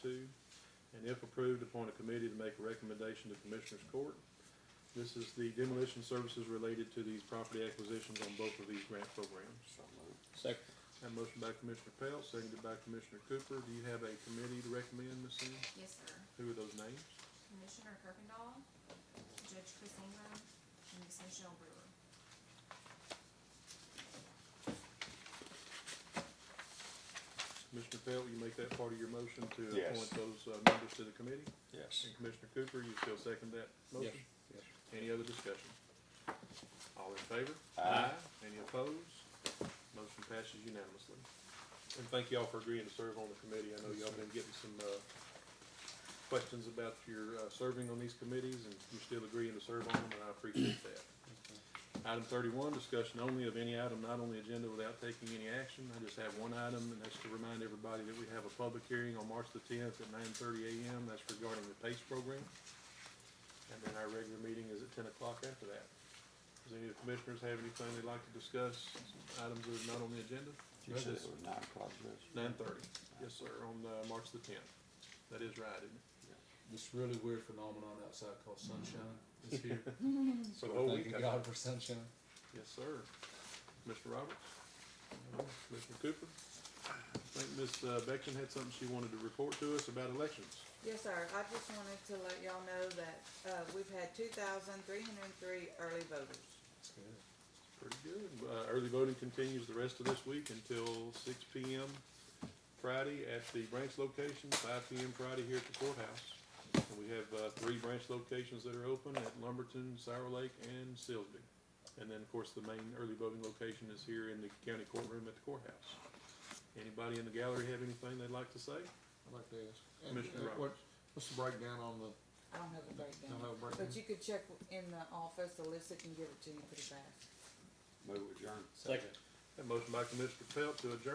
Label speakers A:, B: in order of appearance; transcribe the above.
A: and if approved, appoint a committee to make a recommendation to Commissioners Court. This is the demolition services related to these property acquisitions on both of these grant programs.
B: Second.
A: Have a motion by Commissioner Pelt, seconded by Commissioner Cooper. Do you have a committee to recommend, Ms. Sims?
C: Yes, sir.
A: Who are those names?
C: Commissioner Kirkendall, Judge Chris Ingram, and Ms. Michelle Brewer.
A: Commissioner Pelt, you make that part of your motion to
D: Yes.
A: appoint those uh, members to the committee?
D: Yes.
A: And Commissioner Cooper, you still second that motion?
B: Yes.
A: Any other discussion? All in favor?
D: Aye.
A: Any opposed? Motion passes unanimously. And thank y'all for agreeing to serve on the committee. I know y'all been getting some, uh, questions about your, uh, serving on these committees and you're still agreeing to serve on them and I appreciate that. Item thirty-one, discussion only of any item not on the agenda without taking any action. I just have one item and that's to remind everybody that we have a public hearing on March the tenth at nine thirty AM. That's regarding the PACE program. And then our regular meeting is at ten o'clock after that. Does any of the commissioners have anything they'd like to discuss, items that are not on the agenda?
D: You said it was nine o'clock, Judge?
A: Nine thirty, yes, sir, on, uh, March the tenth. That is right, isn't it?
E: this really weird phenomenon outside called sunshine is here.
A: So,
E: We're
A: oh, we
E: thanking God for sunshine.
A: Yes, sir. Mr. Roberts? Uh-huh. Mr. Cooper? I think Ms. Beckton had something she wanted to report to us about elections.
F: Yes, sir. I just wanted to let y'all know that, uh, we've had two thousand three hundred and three early voters.
A: Pretty good. Uh, early voting continues the rest of this week until six P M. Friday at the branch location, five P M Friday here at the courthouse. And we have, uh, three branch locations that are open at Lumberton, Sour Lake, and Silsby. And then, of course, the main early voting location is here in the county courtroom at the courthouse. Anybody in the gallery have anything they'd like to say?
G: I'd like to ask. and,
A: Commissioner
G: uh,
A: Roberts.
G: what- What's the breakdown on the,
F: I don't have a
G: don't
F: breakdown,
G: have a breakdown?
F: but you could check in the office, Alyssa can give it to you pretty fast.
D: Move adjourned.
B: Second.
A: A motion by Commissioner Pelt to adjourn